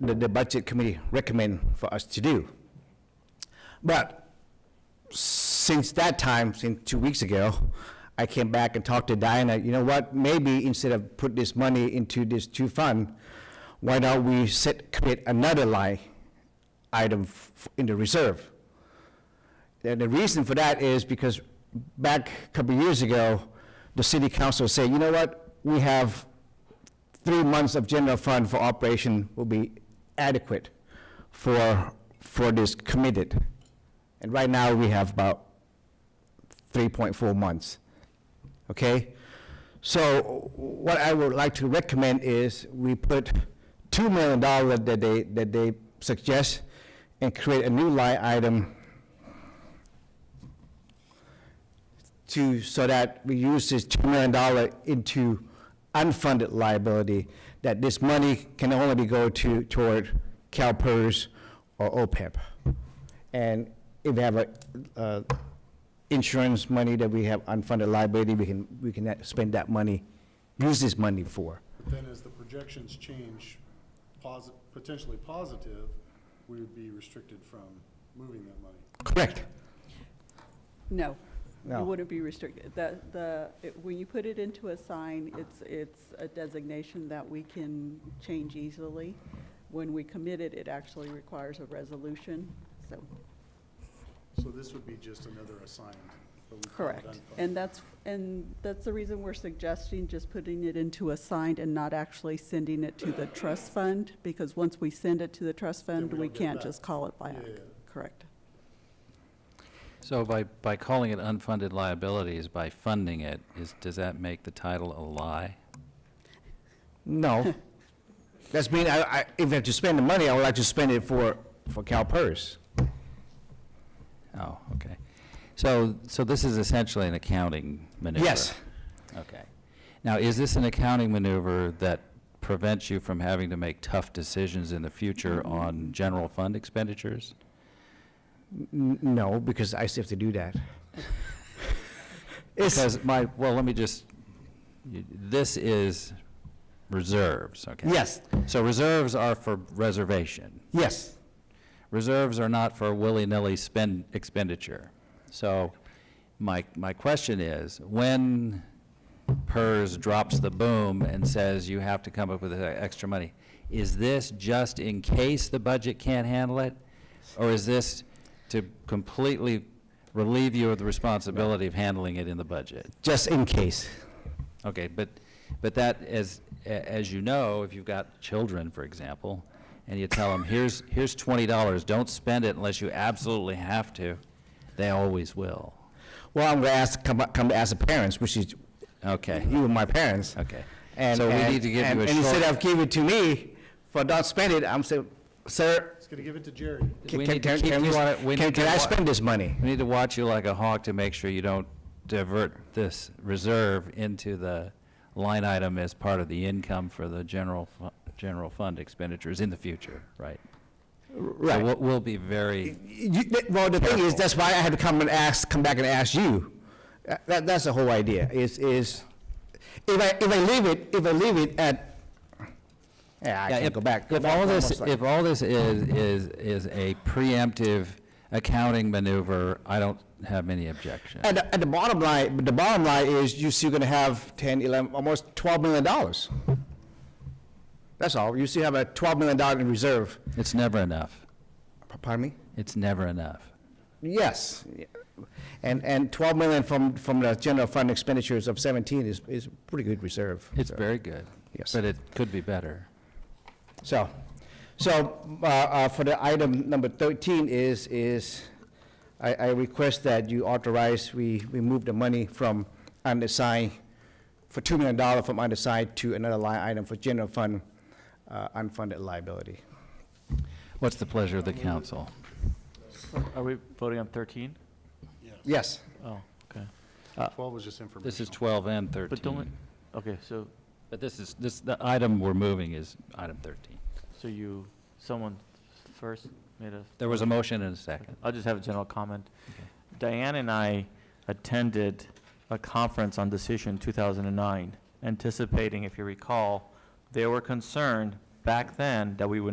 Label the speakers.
Speaker 1: the, the budget committee recommend for us to do. But since that time, since two weeks ago, I came back and talked to Diana, you know what, maybe instead of put this money into this two fund, why don't we set, create another line item f- in the reserve? And the reason for that is because back a couple of years ago, the city council said, you know what, we have three months of general fund for operation will be adequate for, for this committed. And right now, we have about 3.4 months, okay? So what I would like to recommend is we put $2 million that they, that they suggest and create a new line item to, so that we use this $2 million into unfunded liability, that this money can only be go to, toward CalPERS or OPEB. And if we have a, uh, insurance money that we have unfunded liability, we can, we can spend that money, use this money for.
Speaker 2: Then as the projections change, posi- potentially positive, we would be restricted from moving that money.
Speaker 1: Correct?
Speaker 3: No.
Speaker 1: No.
Speaker 3: You wouldn't be restricted. The, the, it- when you put it into a sign, it's, it's a designation that we can change easily. When we commit it, it actually requires a resolution, so,
Speaker 2: So this would be just another assigned, but we call it
Speaker 3: correct.
Speaker 2: unfunded.
Speaker 3: And that's, and that's the reason we're suggesting just putting it into a signed and not actually sending it to the trust fund, because once we send it to the trust
Speaker 2: Then
Speaker 3: fund,
Speaker 2: we
Speaker 3: we
Speaker 2: don't get it
Speaker 3: can't
Speaker 2: back.
Speaker 3: just call it back.
Speaker 2: Yeah, yeah, yeah.
Speaker 3: Correct.
Speaker 4: So by, by calling it unfunded liabilities, by funding it, is, does that make the title a lie?
Speaker 1: No. That's mean, I, I, if I have to spend the money, I would like to spend it for, for CalPERS.
Speaker 4: Oh, okay. So, so this is essentially an accounting maneuver?
Speaker 1: Yes.
Speaker 4: Okay. Now, is this an accounting maneuver that prevents you from having to make tough decisions in the future on general fund expenditures?
Speaker 1: N- No, because I still have to do that. It's,
Speaker 4: Because my, well, let me just, you- this is reserves, okay?
Speaker 1: yes,
Speaker 4: So reserves are for reservation.
Speaker 1: yes,
Speaker 4: reserves are not for willy-nilly spend, expenditure. So my, my question is, when PERS drops the boom and says you have to come up with uh, extra money, is this just in case the budget can't handle it? Or is this to completely relieve you of the responsibility of handling it in the budget?
Speaker 1: just in case.
Speaker 4: Okay, but, but that, as, a- as you know, if you've got children, for example, and you tell them, here's, here's twenty dollars, don't spend it unless you absolutely have to, they always will.
Speaker 1: Well, I'm gonna ask, come, come to ask the parents, which is,
Speaker 4: Okay,
Speaker 1: you were my parents.
Speaker 4: okay.
Speaker 1: And-
Speaker 4: So we
Speaker 1: and-
Speaker 4: need to give you
Speaker 1: and-
Speaker 4: a
Speaker 1: And instead
Speaker 4: short,
Speaker 1: of give it to me, for not spend it, I'm saying, sir,
Speaker 2: It's gonna give it to Jerry.
Speaker 1: can,
Speaker 4: We
Speaker 1: can,
Speaker 4: need to
Speaker 1: can,
Speaker 4: keep
Speaker 1: can
Speaker 4: you
Speaker 1: we-
Speaker 4: on it. We
Speaker 1: can-
Speaker 4: need
Speaker 1: can
Speaker 4: to
Speaker 1: I
Speaker 4: wa-
Speaker 1: spend this money?
Speaker 4: we need to watch you like a hawk to make sure you don't divert this reserve into the line item as part of the income for the general, fu- general fund expenditures in the future, right? So
Speaker 1: Right.
Speaker 4: we'll, we'll be very,
Speaker 1: You, th- well, the thing is,
Speaker 4: Careful.
Speaker 1: that's why I had to come and ask, come back and ask you. Uh, That, that's the whole idea, is, is, if I, if I leave it, if I leave it at, yeah, I
Speaker 4: Yeah,
Speaker 1: can
Speaker 4: if-
Speaker 1: go back. go
Speaker 4: If
Speaker 1: back
Speaker 4: all
Speaker 1: one more
Speaker 4: this,
Speaker 1: slide.
Speaker 4: if all this is, is, is a preemptive accounting maneuver, I don't have any objection.
Speaker 1: At, the- at the bottom line, but the bottom line is, you still gonna have ten, eleven, almost twelve million dollars. That's all, you still have a twelve million dollar in reserve.
Speaker 4: It's never enough.
Speaker 1: P- Pardon me?
Speaker 4: It's never enough.
Speaker 1: Yes, and, and twelve million from, from the general fund expenditures of seventeen is, is pretty good reserve.
Speaker 4: It's
Speaker 1: so.
Speaker 4: very good.
Speaker 1: Yes.
Speaker 4: But it could be better.
Speaker 1: So, so, uh, uh, for the item number thirteen is, is, I, I request that you authorize, we, we move the money from undersigned, for two million dollar from undersigned to another line item for general fund, uh, unfunded liability.
Speaker 4: What's the pleasure of the council?
Speaker 5: Are we voting on 13?
Speaker 1: Yes,
Speaker 5: Oh, okay.
Speaker 2: Twelve was just information.
Speaker 4: This is 12 and
Speaker 5: But
Speaker 4: 13.
Speaker 5: don't, we- okay, so,
Speaker 4: But this is, this, the item we're moving is item 13.
Speaker 5: so you, someone first made a,
Speaker 4: There was a motion and a second.
Speaker 5: I'll just have a general comment. Diane and I attended a conference on decision 2009, anticipating, if you recall, they were concerned back then that we would